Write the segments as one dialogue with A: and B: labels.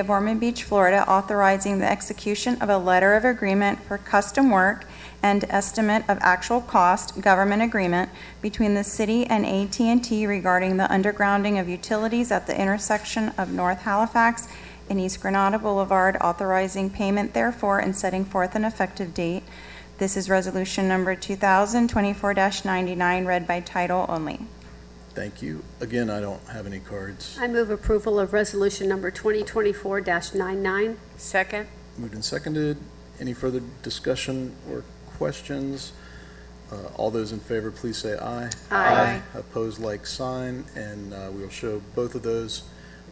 A: of Ormond Beach, Florida, authorizing the execution of a letter of agreement for custom work and estimate of actual cost government agreement between the city and at and t regarding the undergrounding of utilities at the intersection of North Halifax and East Granada Boulevard, authorizing payment therefore and setting forth an effective date. This is Resolution Number 2024-99, read by title only.
B: Thank you. Again, I don't have any cards.
C: I move approval of resolution number 2024-99.
D: Second?
B: Moved and seconded. Any further discussion or questions? Uh, All those in favor, please say aye.
C: Aye.
B: Opposed, like sign, and uh, we will show both of those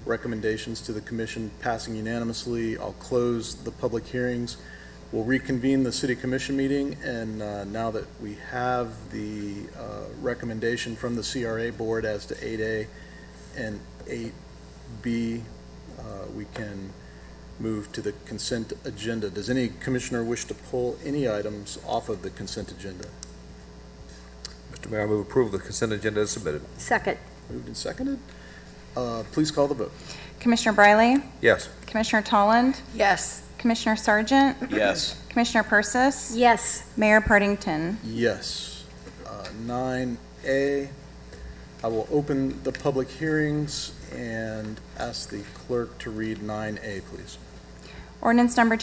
B: recommendations to the commission passing unanimously. I'll close the public hearings. We'll reconvene the city commission meeting, and uh, now that we have the uh, recommendation from the CRA board as to 8A and 8B, uh, we can move to the consent agenda. Does any commissioner wish to pull any items off of the consent agenda?
E: Mr. Mayor, I move approval of the consent agenda as submitted.
C: Second,
B: Moved and seconded. Uh, Please call the vote.
A: Commissioner Briley?
E: Yes.
A: Commissioner Tolland?
D: Yes.
A: Commissioner Sargent?
F: Yes.
A: Commissioner Persis?
C: yes.
A: Mayor Partington?
B: Yes. Uh, Nine A, I will open the public hearings and ask the clerk to read nine A, please.
A: Ordinance number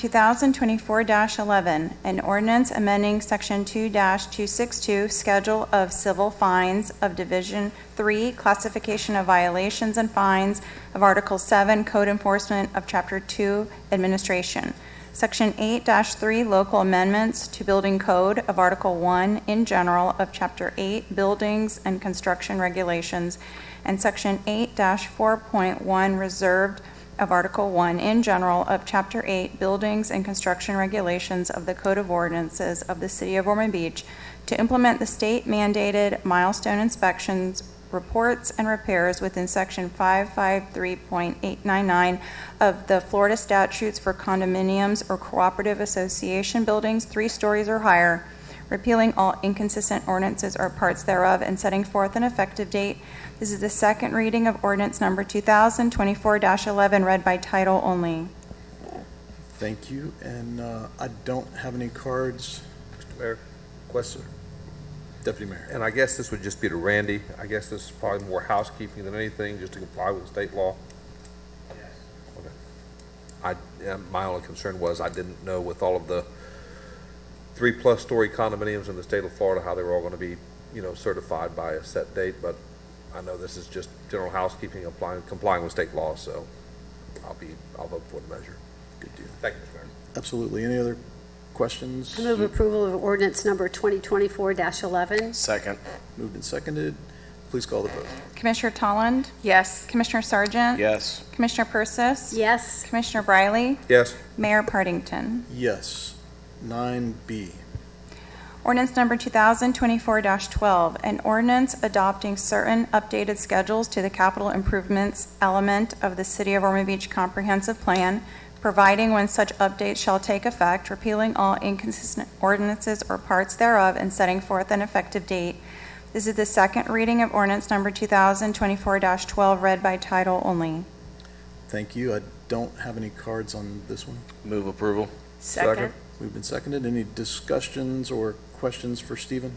A: 2024-11, an ordinance amending Section 2-262, Schedule of Civil Fines of Division 3, Classification of Violations and Fines of Article 7, Code Enforcement of Chapter 2, Administration. Section 8-3, Local Amendments to Building Code of Article 1 in General of Chapter 8, Buildings and Construction Regulations, and Section 8-4.1, Reserved of Article 1 in general of Chapter 8 Buildings and Construction Regulations of the Code of Ordinances of the City of Ormond Beach to implement the state mandated milestone inspections, reports, and repairs within Section 553.899 of the Florida statutes for condominiums or cooperative association buildings three stories or higher, repealing all inconsistent ordinances or parts thereof, and setting forth an effective date this is the second reading of ordinance number 2024-11, read by title only.
B: Thank you, and uh, I don't have any cards.
E: Mr. Mayor, question,
B: Deputy Mayor.
E: and I guess this would just be to Randy. I guess this is probably more housekeeping than anything, just to comply with state law. Yes. I, yeah, my only concern was I didn't know with all of the three-plus story condominiums in the state of Florida, how they were all going to be, you know, certified by a set date, but I know this is just general housekeeping, applying, complying with state law, so I'll be, I'll vote for the measure. Good deal. Thank you, Mr. Mayor.
B: Absolutely. Any other questions?
C: I move approval of ordinance number 2024-11.
F: Second.
B: Moved and seconded. Please call the vote.
A: Commissioner Tolland?
D: Yes.
A: Commissioner Sargent?
F: Yes.
A: Commissioner Persis?
C: Yes,
A: Commissioner Briley?
E: Yes,
A: Mayor Partington?
B: Yes. Nine B.
A: Ordinance number 2024-12, an ordinance adopting certain updated schedules to the capital improvements element of the City of Ormond Beach Comprehensive Plan, providing when such updates shall take effect, repealing all inconsistent ordinances or parts thereof, and setting forth an effective date. This is the second reading of ordinance number 2024-12, read by title only.
B: Thank you. I don't have any cards on this one.
F: Move approval.
D: Second?
B: Moved and seconded. Any discussions or questions for Stephen?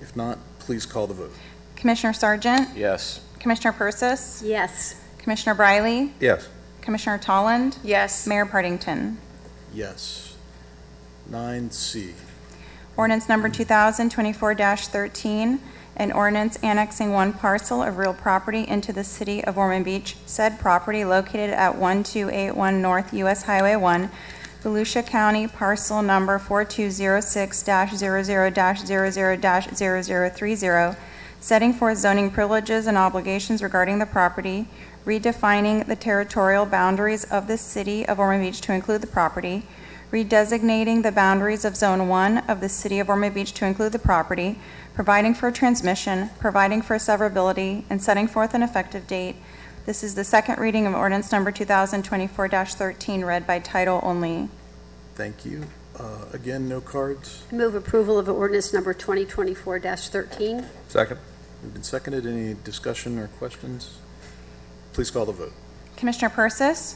B: If not, please call the vote.
A: Commissioner Sargent?
F: Yes.
A: Commissioner Persis?
C: yes.
A: Commissioner Briley?
E: yes.
A: Commissioner Tolland?
D: Yes.
A: Mayor Partington?
B: Yes. Nine C.
A: Ordinance number 2024-13, an ordinance annexing one parcel of real property into the city of Ormond Beach. Said property located at 1281 North US Highway 1, Volusia County, parcel number 4206-00-00-0030, setting forth zoning privileges and obligations regarding the property, redefining the territorial boundaries of the city of Ormond Beach to include the property, redesignating the boundaries of Zone 1 of the City of Ormond Beach to include the property, providing for transmission, providing for severability, and setting forth an effective date. This is the second reading of ordinance number 2024-13, read by title only.
B: Thank you. Uh, Again, no cards.
C: I move approval of ordinance number 2024-13.
E: Second?
B: Moved and seconded. Any discussion or questions? Please call the vote.
A: Commissioner Persis?